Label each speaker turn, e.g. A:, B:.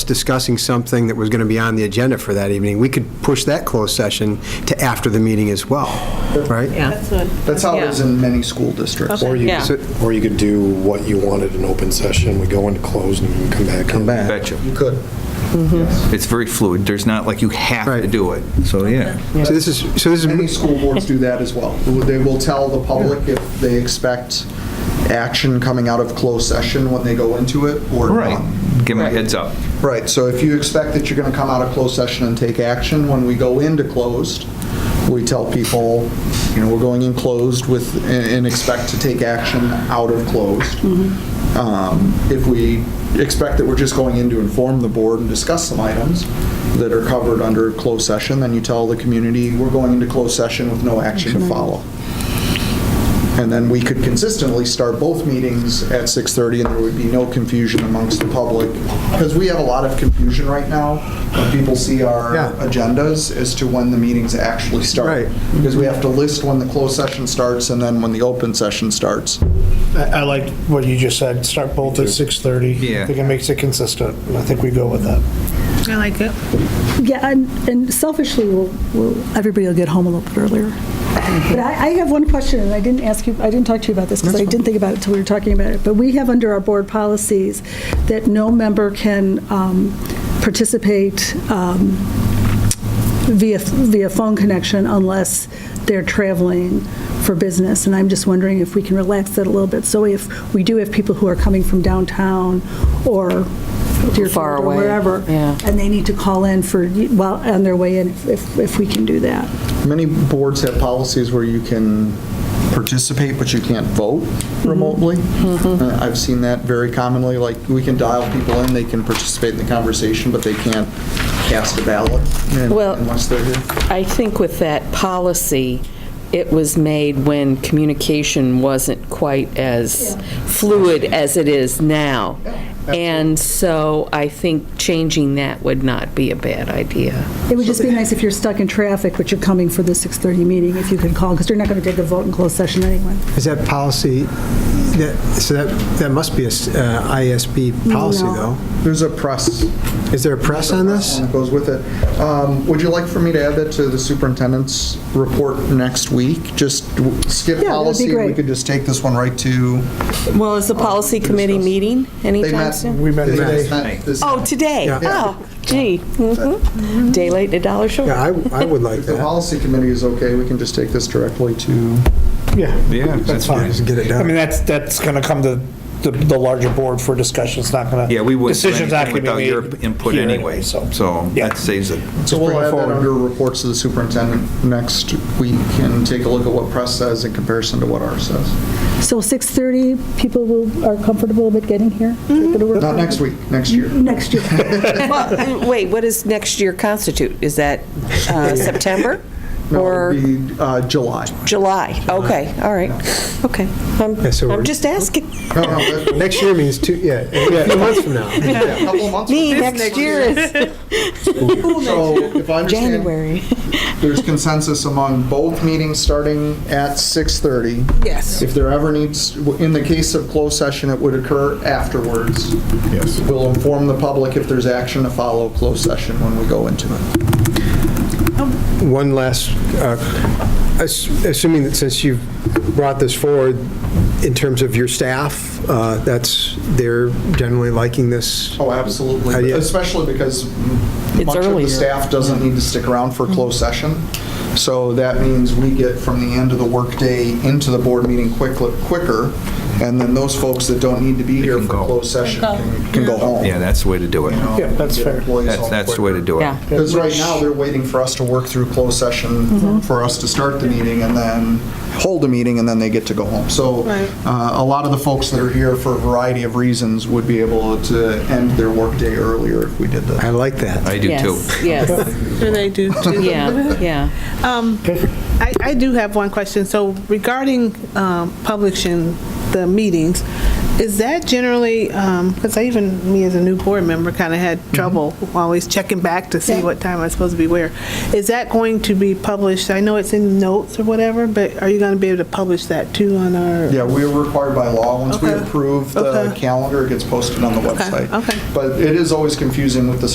A: discussing something that was going to be on the agenda for that evening, we could push that closed session to after the meeting as well, right?
B: Yeah,
C: That's how it is in many school districts.
D: Or you,
B: Yeah.
A: So-
D: or you could do what you wanted in open session, we go into closed and you come back. Come
E: Betcha.
C: You could.
F: Mm-hmm.
E: It's very fluid. There's not like you have to
A: Right.
E: do it. So, yeah.
A: So this is, so this
C: Many
A: is,
C: school boards do that as well. They will tell the public if they expect action coming out of closed session when they go into it or
E: Right.
C: not.
E: um, Give them a heads up.
C: Right, so if you expect that you're going to come out of closed session and take action, when we go into closed, we tell people, you know, we're going in closed with, and and expect to take action out of closed. Um, If we expect that we're just going in to inform the board and discuss some items that are covered under closed session, then you tell the community, we're going into closed session with no action to follow. And then we could consistently start both meetings at 6:30, and there would be no confusion amongst the public. Because we have a lot of confusion right now when people see our
A: Yeah.
C: agendas as to when the meetings actually start.
A: Right.
C: Because we have to list when the closed session starts and then when the open session starts.
F: I I liked what you just said, start both at 6:30.
E: Yeah.
F: I think it makes it consistent, and I think we go with that.
B: I like it.
G: Yeah, and and selfishly, we'll, we'll- everybody will get home a little bit earlier. But I I have one question, and I didn't ask you, I didn't talk to you about this, because I didn't think about it until we were talking about it. But we have under our board policies that no member can um, participate um, via, via phone connection unless they're traveling for business. And I'm just wondering if we can relax that a little bit. So if we do have people who are coming from downtown or
H: Far
G: Deerfield or
H: away,
G: wherever,
H: yeah.
G: and they need to call in for, well, on their way in, if, if we can do that.
C: Many boards have policies where you can participate, but you can't vote
H: Mm-hmm.
C: remotely. Uh, I've seen that very commonly, like, we can dial people in, they can participate in the conversation, but they can't cast a ballot in-
H: Well-
C: unless they're here.
H: I think with that policy, it was made when communication wasn't quite as fluid as it is now. And so I think changing that would not be a bad idea.
G: It would just be nice if you're stuck in traffic, but you're coming for the 6:30 meeting, if you could call, because they're not going to take a vote in closed session anyway.
A: is that policy, that, so that, that must be a s- uh, ISB policy,
G: No.
A: though.
C: There's a press.
A: Is there a press on this?
C: that Goes with it. Um, Would you like for me to add that to the superintendent's report next week? Just w- skip
G: that'd be
C: policy, and we
G: great.
C: could just take this one right to.
H: Well, is the policy committee meeting
C: They
H: anytime
C: met.
H: soon?
F: We met
C: they
F: today.
C: met this-
H: Oh, today?
A: Yeah.
H: Oh, gee. Mhm. Day late, a dollar short.
A: Yeah, I, I would like
C: If the
A: that.
C: policy committee is okay, we can just take this directly to.
F: Yeah.
E: Yeah, that's fine.
A: Just get it
F: I mean,
A: done.
F: that's, that's going to come to the, the larger board for discussion, it's not going to.
E: Yeah, we wouldn't do
F: Decision's not
E: anything
F: going to be
E: without
F: made.
E: your input
F: here
E: anyway, so
F: so. Yeah.
E: that saves it.
C: So we'll
F: bring it
C: add that
F: forward.
C: under reports to the superintendent next week and take a look at what press says in comparison to what ours says.
G: So 6:30, people will, are comfortable with getting here? They're gonna work
C: Mm-hmm. Not
G: on
C: next
G: it.
C: week, next year.
G: Next year.
H: Well, uh, Wait, what does next year constitute? Is that uh, September
C: No,
H: or
C: it'll be uh, July.
H: July? Okay, all right, okay. I'm
A: Yeah, so
H: I'm
A: we're-
H: just asking.
C: No, no, that-
A: Next year means two, yeah, a few months from now.
C: a couple of months.
H: Me, next year is
C: So if I understand,
H: January.
C: there's consensus among both meetings starting at 6:30.
B: Yes.
C: If there ever needs, in the case of closed session, it would occur afterwards. Yes. We'll inform the public if there's action to follow closed session when we go into it.
A: One last, uh, ass- assuming that since you've brought this forward, in terms of your staff, uh, that's, they're generally liking this?
C: Oh, absolutely.
E: Uh,
A: Idea.
C: Especially because much of the
H: earlier.
C: staff doesn't need to stick around for closed
E: Mm-hmm.
C: session. So that means we get from the end of the workday into the board meeting quick- quicker. And then those folks that don't need to be here
E: can
C: for
E: go.
C: closed session can can go home.
E: Yeah, that's the way to do it.
F: Yeah, that's
C: Get
F: fair.
C: employees
E: That's,
C: home
E: that's the way to do it.
H: Yeah.
C: Because right now, they're waiting for us to work through closed
B: Mm-hmm.
C: session, for us to start the meeting, and then hold the meeting, and then they get to go home. So uh, a lot of the folks that are here for a variety of reasons would be able to end their workday earlier if we did that.
A: I like that.
E: I do too.
H: Yes, yes,
B: Sure they do, too.
H: yeah, yeah.
B: I, I do have one question. So regarding um, publishing the meetings, Is that generally, because I even, me as a new board member, kind of had trouble always checking back to see
G: Yeah.
B: what time I'm supposed to be where. Is that going to be published? I know it's in notes or whatever, but are you going to be able to publish that too on our?
C: Yeah, we are required by law, once we
B: Okay.
C: approve the
B: Okay.
C: calendar, it gets posted on the website.
B: okay.
C: But it is always confusing with the